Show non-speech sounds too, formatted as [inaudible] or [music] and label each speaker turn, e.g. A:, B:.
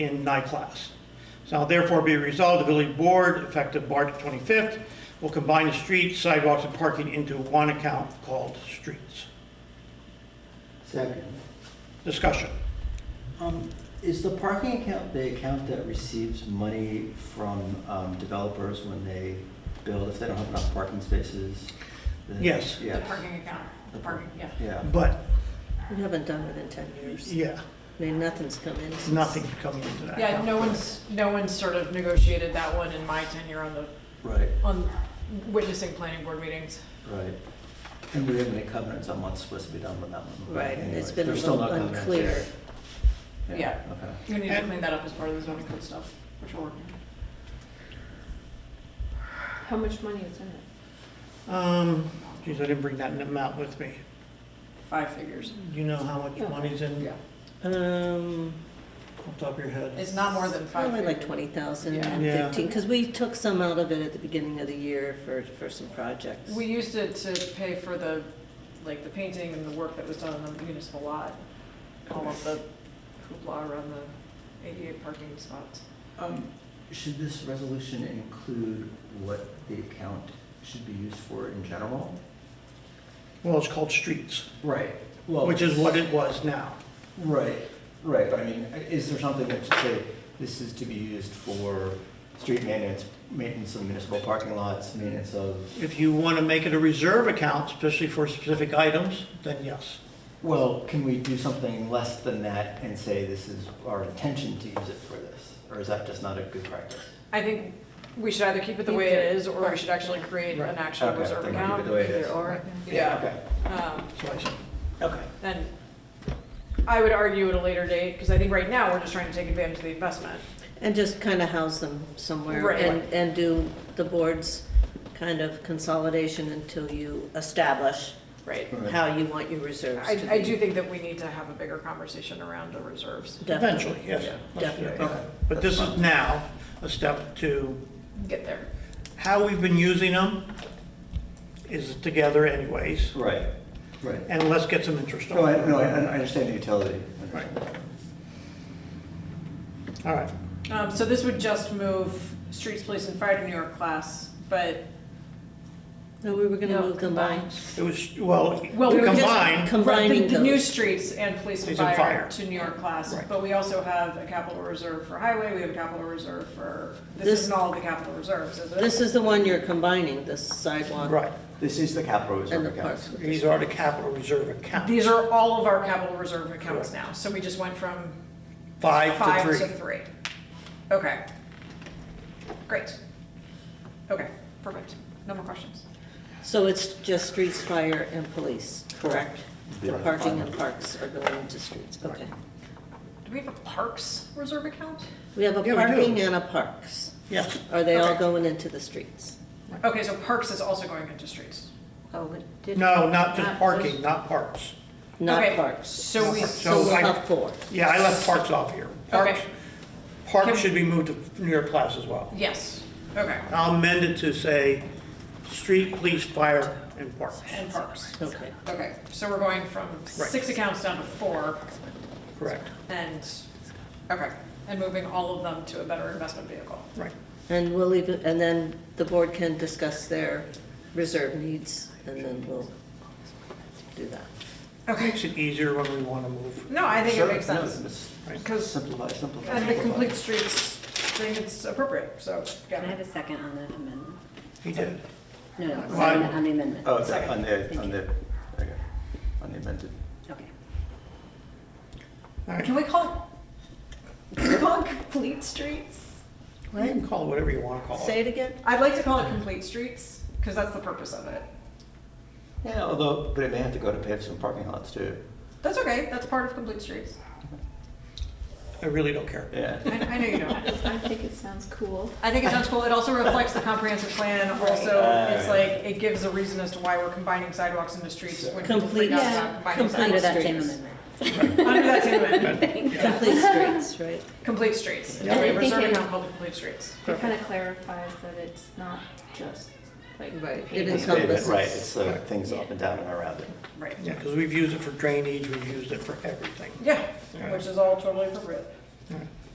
A: in night class. Now therefore be resolved, the village board, effective March 25th, will combine the streets, sidewalks, and parking into one account called streets.
B: Second.
A: Discussion.
B: Um, Is the parking account the account that receives money from um, developers when they build, if they don't have enough parking spaces? then-
A: Yes.
C: The
B: Yes.
C: parking account, the parking, yeah.
B: Yeah,
A: But,
D: We haven't done it in 10 years.
A: yeah,
D: I mean, nothing's come in. since-
A: nothing coming into that.
C: Yeah,
A: account.
C: no one's, no one's sort of negotiated that one in my tenure on the,
B: right,
C: on witnessing planning board meetings.
B: right. And we haven't any covenants on what's supposed to be done with that one.
D: Right, and it's
B: Anyways,
D: been a
B: there's still
D: little
B: no covenants
D: unclear.
B: yet.
C: Yeah.
B: Okay.
C: We need to
A: And-
C: clean that up as part of the zoning code stuff, which we're working on.
E: How much money is in it?
A: Um, geez, I didn't bring that amount with me.
C: Five figures.
A: Do you know how much
E: Yeah.
A: money's in,
C: Yeah.
A: off
D: Um,
A: the top of your head?
C: It's not more than five
D: Probably like
C: figures.
D: 20,000
C: Yeah.
D: and
A: Yeah.
D: 15, because we took some out of it at the beginning of the year for, for some projects.
C: We used it to pay for the, like, the painting and the work that was done on the municipal lot. All of the hoopla around the eighty-eight parking spots.
B: Um, Should this resolution include what the account should be used for in general?
A: Well, it's called streets,
B: Right. Well,
A: which is what it was now.
B: Right, right, but I mean, is there something that should say, this is to be used for street maintenance, maintenance of municipal parking lots, maintenance of,
A: If you want to make it a reserve account, especially for specific items, then yes.
B: well, can we do something less than that and say this is our intention to use it for this? Or is that just not a good practice?
C: I think we should either keep it the way it is, or we should actually create an
A: Right.
C: actual
B: Okay,
C: reserve
B: then keep it
C: account.
B: the way it is.
C: Either or. Yeah.
B: Okay,
C: Um,
A: So I said,
B: okay.
C: then I would argue at a later date, because I think right now, we're just trying to take advantage of the investment.
D: And just kind of house them somewhere.
C: Right.
D: And, and do the board's kind of consolidation until you establish
C: Right.
B: Right.
D: how you want your reserves to
C: I,
D: be.
C: I do think that we need to have a bigger conversation around the reserves,
D: Definitely.
A: Eventually, yes. Let's do
B: Yeah,
A: it.
D: Definitely.
B: okay.
A: But this is now a step to
C: get there.
A: how we've been using them is together anyways,
B: Right, right.
A: and let's get some interest
B: No,
A: on
B: I,
A: it.
B: no, I I understand the utility.
A: Right. All right,
C: Um, so this would just move streets, police, and fire to New York class, but.
D: No, we were going to
C: No,
D: move them by.
C: combined.
A: it was, well,
C: Well, we were just-
A: combined,
D: Combining
C: Right, the- The new
D: those.
C: streets and police and
A: Police and
C: fire
A: fire.
C: to New York class,
A: Right.
C: but we also have a capital reserve for highway, we have a capital reserve for, this
D: This-
C: isn't all of the capital reserves, is it?
D: This is the one you're combining, the sidewalk
A: right,
B: This is the capital
D: and
B: reserve
D: the
B: account.
D: parks. with
A: these are the capital reserve accounts,
C: These are all of our capital reserve accounts now, so we just went from
A: five
C: five
A: to
C: to
A: three.
C: three. Okay. Great. Okay, perfect. No more questions.
D: So it's just streets, fire, and police, correct? The
B: Right.
D: parking and parks are going into streets, okay.
C: Do we have a parks reserve account?
D: We have a
A: Yeah, we do.
D: parking and a parks.
A: Yes,
D: Are they all
C: Okay.
D: going into the streets?
C: Okay, so parks is also going into streets.
D: Oh, it did.
A: no, not just
E: Not
A: parking,
E: just-
A: not parks.
D: Not
C: Okay,
D: parks.
C: So we,
A: So
D: So we'll
A: I-
D: have four.
A: Yeah, I left parks off here. Parks,
C: okay,
A: parks
C: Can-
A: should be moved to New York class as well.
C: yes, okay,
A: I'll amend it to say, street, police, fire, and parks.
C: and parks.
D: Okay.
C: Okay, so we're going from six accounts down to four
A: Correct,
C: and, okay, and moving all of them to a better investment vehicle.
A: right.
D: And we'll leave, it, and then the board can discuss their reserve needs, and then we'll do that.
C: Okay,
A: Makes it easier when we want to move.
C: no, I think it
B: Sure,
C: makes
B: no,
C: sense.
B: it's-
C: Because-
B: Simplify, simplify.
C: And the
B: simplify.
C: complete streets thing is appropriate, so,
E: Can I
C: yeah.
E: have a second on that amendment?
A: He did.
E: No, no, second
A: Why?
E: on the amendment.
B: Oh, it's
C: Second.
B: on the,
E: Thank
B: on
E: you.
B: the, okay, on the amended.
E: Okay.
A: All right,
C: Can we call it, can we call it complete streets?
A: you can call it whatever you want to call
D: Say
A: it.
D: it again?
C: I'd like to call it complete streets, because that's the purpose of it.
B: Yeah, although, but it may have to go to pave some parking lots too.
C: That's okay, that's part of complete streets.
A: I really don't
B: [laughs]
A: care.
B: Yeah.
C: I, I know you don't.
E: I think it sounds cool.
C: I think it sounds cool, it also reflects the comprehensive plan, also, it's like, it gives a reason as to why we're combining sidewalks into streets when people
D: Complete-
C: freak out about
E: Yeah.
C: combining
D: Complete
E: Under [laughs]
C: sidewalks.
E: that same
D: streets.
E: amendment.
C: Under that same amendment,
D: Complete streets, right?
C: complete streets,
E: Yeah.
C: and we
E: I think
C: reserve
E: it-
C: account called complete streets.
E: It kind of clarifies that it's not just like.
D: Right,
E: paving.
D: it
B: It's pavement,
D: encompasses.
B: Right, it's the things up and down and around it.
C: Right,
A: Yeah, because we've used it for drainage, we've used it for everything.
C: yeah,
A: Yeah.
C: which is all totally appropriate.